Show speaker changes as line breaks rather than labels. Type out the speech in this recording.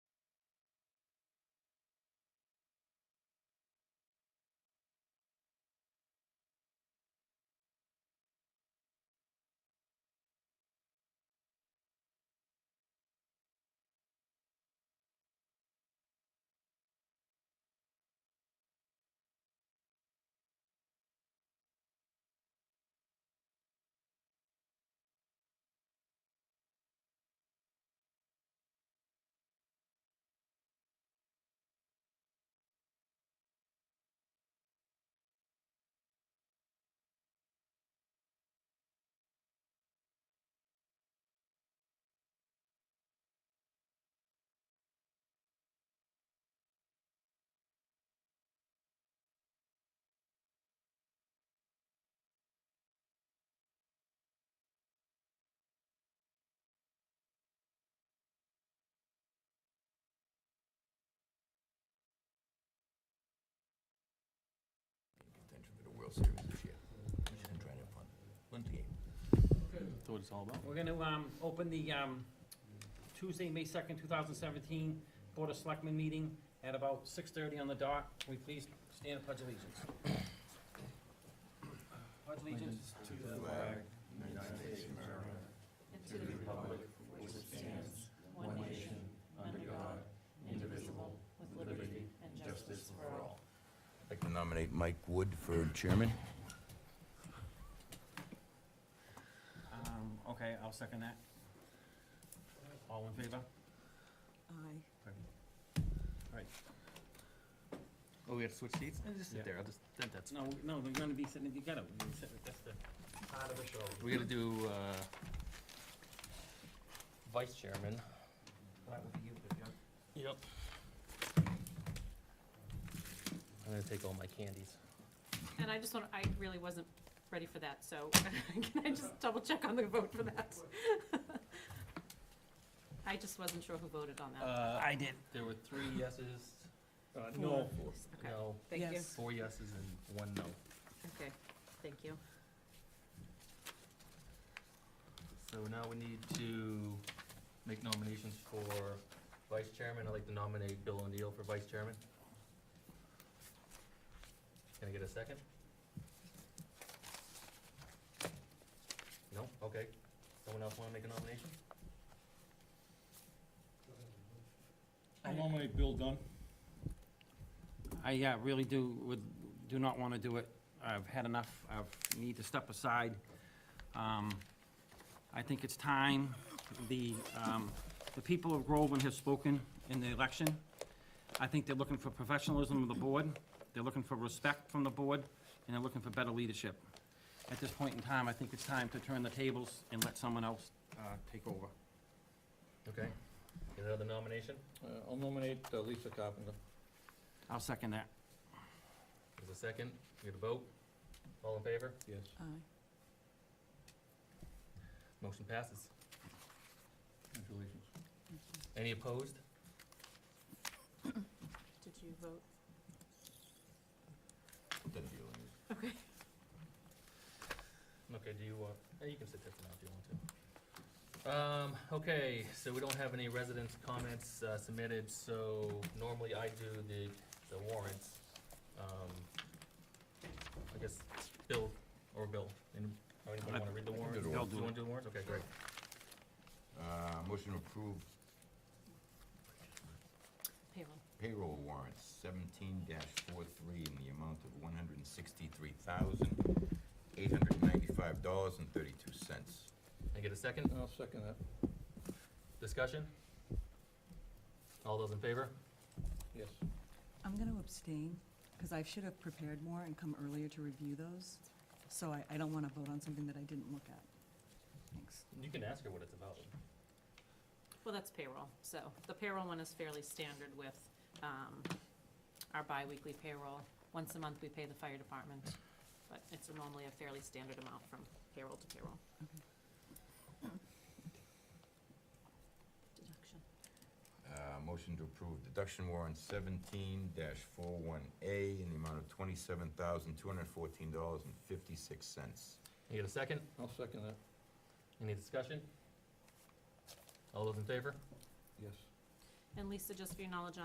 World Series this year. We're just gonna try to have fun. Win the game.
That's what it's all about.
We're gonna, um, open the, um, Tuesday, May second, two thousand seventeen, Board of Selectmen meeting at about six thirty on the dot. Can we please stand and pledge allegiance? Pledge allegiance to the flag.
I'd like to nominate Mike Wood for chairman.
Um, okay, I'll second that. All in favor?
Aye.
Oh, we gotta switch seats? Eh, Just
Yeah.
sit there, I'll just, that- that's,
No, no, we're gonna be sitting together. We're gonna be sitting- That's the part of the show.
we gotta do, uh, vice chairman.
That would be you, if you're-
Yep. I'm gonna take all my candies.
And I just want, I really wasn't ready for that, so can I just double check on the vote for that? I just wasn't sure who voted on that.
Uh,
I did.
there were three yeses,
Uh, No.
Okay,
no,
Thank you.
four yeses and one no.
Okay, thank you.
So now we need to make nominations for vice chairman. I'd like to nominate Bill O'Neill for vice chairman. Can I get a second? No? Okay. Someone else wanna make a nomination?
I'll
nominate Bill Dunn.
I uh, really do, would, do not want to do it. I've had enough. I need to step aside. Um, I think it's time. The, um, the people of Groveland have spoken in the election. I think they're looking for professionalism of the board. They're looking for respect from the board, and they're looking for better leadership. At this point in time, I think it's time to turn the tables and let someone else uh, take over.
Okay. Get another nomination?
I'll nominate uh, Lisa Carpenter.
I'll second that.
There's a second. We get a vote. All in favor?
Yes.
Motion passes.
Congratulations.
Any opposed?
Did you vote?
Then Bill and his-
Okay.
Okay, do you want, eh, you can sit there for now if you want to. Um, okay, so we don't have any residents' comments uh, submitted, so normally I do the, the warrants. Um, I guess Bill or Bill, and, or anybody
I-
wanna read the
I can do
warrants?
the warrants.
Do you wanna do the warrants? Okay, great.
Uh, motion to approve
Payroll.
payroll warrants seventeen 43 in the amount of one hundred and sixty-three thousand, eight hundred and ninety-five dollars and thirty-two cents.
Can I get a second?
I'll second that.
Discussion? All those in favor?
Yes.
I'm going to abstain, because I should have prepared more and come earlier to review those. So I, I don't want to vote on something that I didn't look at. Thanks.
You can ask her what it's about.
Well, that's payroll, so the payroll one is fairly standard with um, our bi-weekly payroll. Once a month, we pay the fire department, but it's normally a fairly standard amount from payroll to payroll. Deduction.
Uh, motion to approve deduction warrant seventeen 41 A in the amount of twenty-seven thousand, two hundred and fourteen dollars and fifty-six cents.
Can I get a second?
I'll second that.
Any discussion? All those in favor?
Yes.
And Lisa, just for your knowledge,